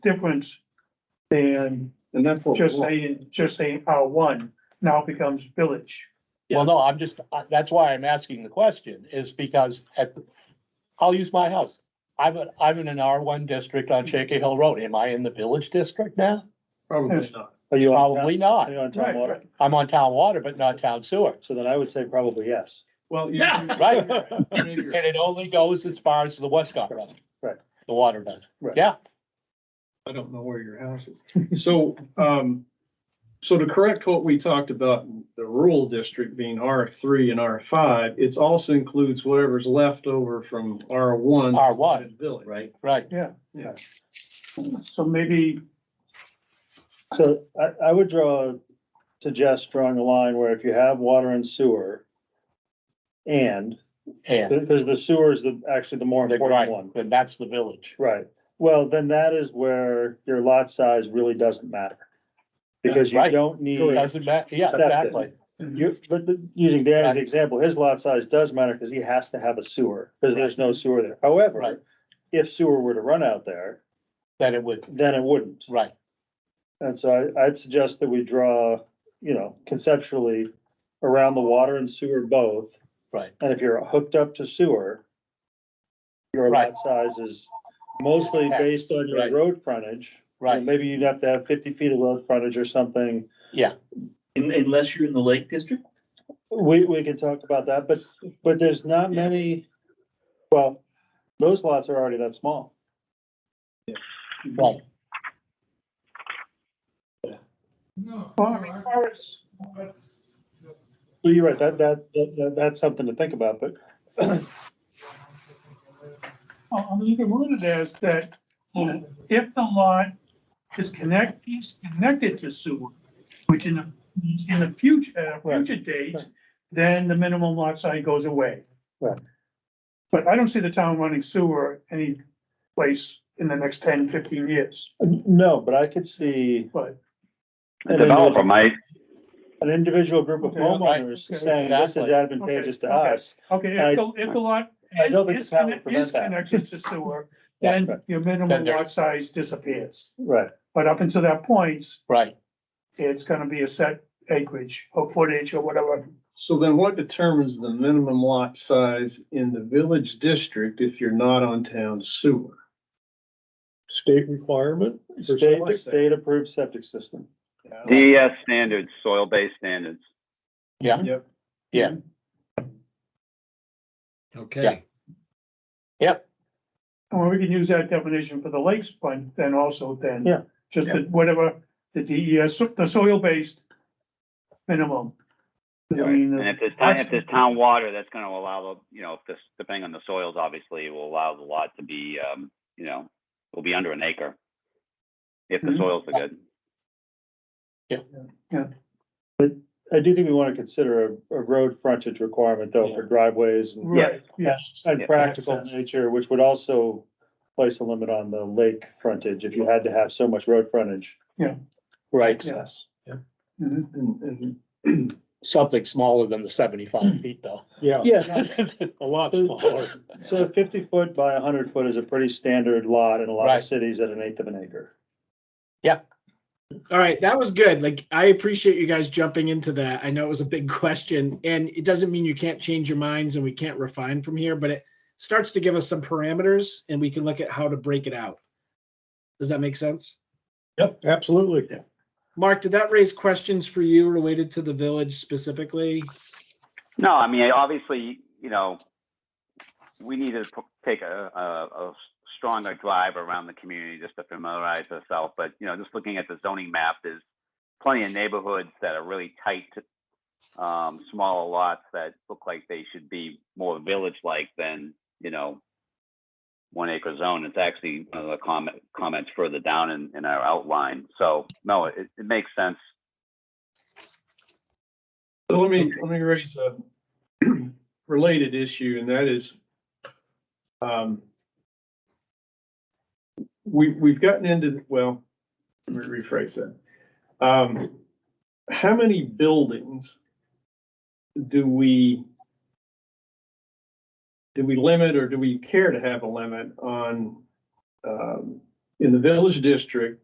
difference than And that's what. we just want. saying, just saying R one now becomes village. Well, no, I'm just, I- that's why I'm asking the question is because at, I'll use my house. I'm, a- I'm in an R one district on Shaky Hill Road. Am I in the village district now? Probably Yes. not. Are you on, town- Probably not. are you on town water? I'm on town water, but not town sewer, So then I would say probably yes. Well, you- Yeah, right. you- maybe and you're- it only goes as far as the Westcott Road. Right. The water does. Right. Yeah, I don't know where your house is. So, um, so to correct what we talked about, the rural district being R three and R five, it's also includes whatever's left over from R one. R one, Village. Right. right. So maybe, So I, I would draw, suggest drawing a line where if you have water and sewer. And, And because the sewer is the, actually the more the important one. grind, and that's the village. Right, well, then that is where your lot size really doesn't matter. Because you Right. don't need, It doesn't matter. Yeah, Septic. exactly. you, but the- using Dan as the example, his lot size does matter because he has to have a sewer, because there's no sewer there. Right. However, if sewer were to run out there, That it would, then it wouldn't. right. And so I, I'd suggest that we draw, you know, conceptually around the water and sewer both. Right. And if you're hooked up to sewer, your lot Right. size is mostly Yeah, based on your right. road frontage. You know, Right, Maybe you'd have to have fifty feet of road frontage or something. yeah, Un- Unless you're in the Lake District? We, we can talk about that, but, but there's not many, well, those lots are already that small. right. well, I mean, R is, So You're right, that, that, that, that- that's something to think about, but I I mean, you can word it as that if the lot is connect, is connected to sewer, which in, a- in the future, at a Right. future date, then the minimum lot size goes away. Right. But I don't see the town running sewer any place in the next 10, 15 years, no, but I could see but. The developer might, an individual group of Okay, all right, homeowners okay, saying this is exactly. advantageous to Okay, okay. us. Okay, I- if the, if the lot Uh, I don't think is, the town would conne- prevent is that. connected to sewer, Yeah, then right. your minimum Then there- lot size disappears. Right, But up until that point, Right, it's gonna be a set acreage or footage or whatever. So then what determines the minimum lot size in the village district if you're not on town sewer? State requirement? state, like that. state approved septic system. DES E standards, soil-based standards. yeah, Yep. Yeah. Okay. Well, we can use that definition for the lakes fund then also then. Yeah. Just that whatever the DES, so- the soil-based minimum. 'Cause I mean, And the- if there's, town- if there's town water, that's gonna allow, the you know, if this, depending on the soils, obviously, it will allow the lot to be, um, you know, will be under an acre. If the Mhm. soils are good. I do think we want to consider a, a road frontage requirement though for driveways and Right, yeah, and Yeah. practical Access. nature, which would also place a limit on the lake frontage if you had to have so much road frontage. right. yes. Yeah. Mhm. And- and- Something smaller than the seventy-five feet though. Yeah. Yeah, A lot smaller. so fifty foot by hundred foot is a pretty standard lot in a lot Right. of cities at an eighth of an acre. All right, that was good. Like, I appreciate you guys jumping into that. I know it was a big question, and it doesn't mean you can't change your minds and we can't refine from here, but it starts to give us some parameters and we can look at how to break it out. Does that make sense? Yep, absolutely. Mark, did that raise questions for you related to the village specifically? No, I mean, obviously, you know, we need to p- take a, a, a stronger drive around the community just to familiarize ourselves. But, you know, just looking at the zoning map, there's plenty of neighborhoods that are really tight, um, smaller lots that look like they should be more village-like than, you know, one acre zone. It's actually one of the comment, comments further down in, in our outline. So, no, it, it makes sense. So let me, let me raise a related issue, and that is, um, we, we've gotten into, well, let me rephrase that. Um, how many buildings do we, do we limit or do we care to have a limit on, um, in the village district,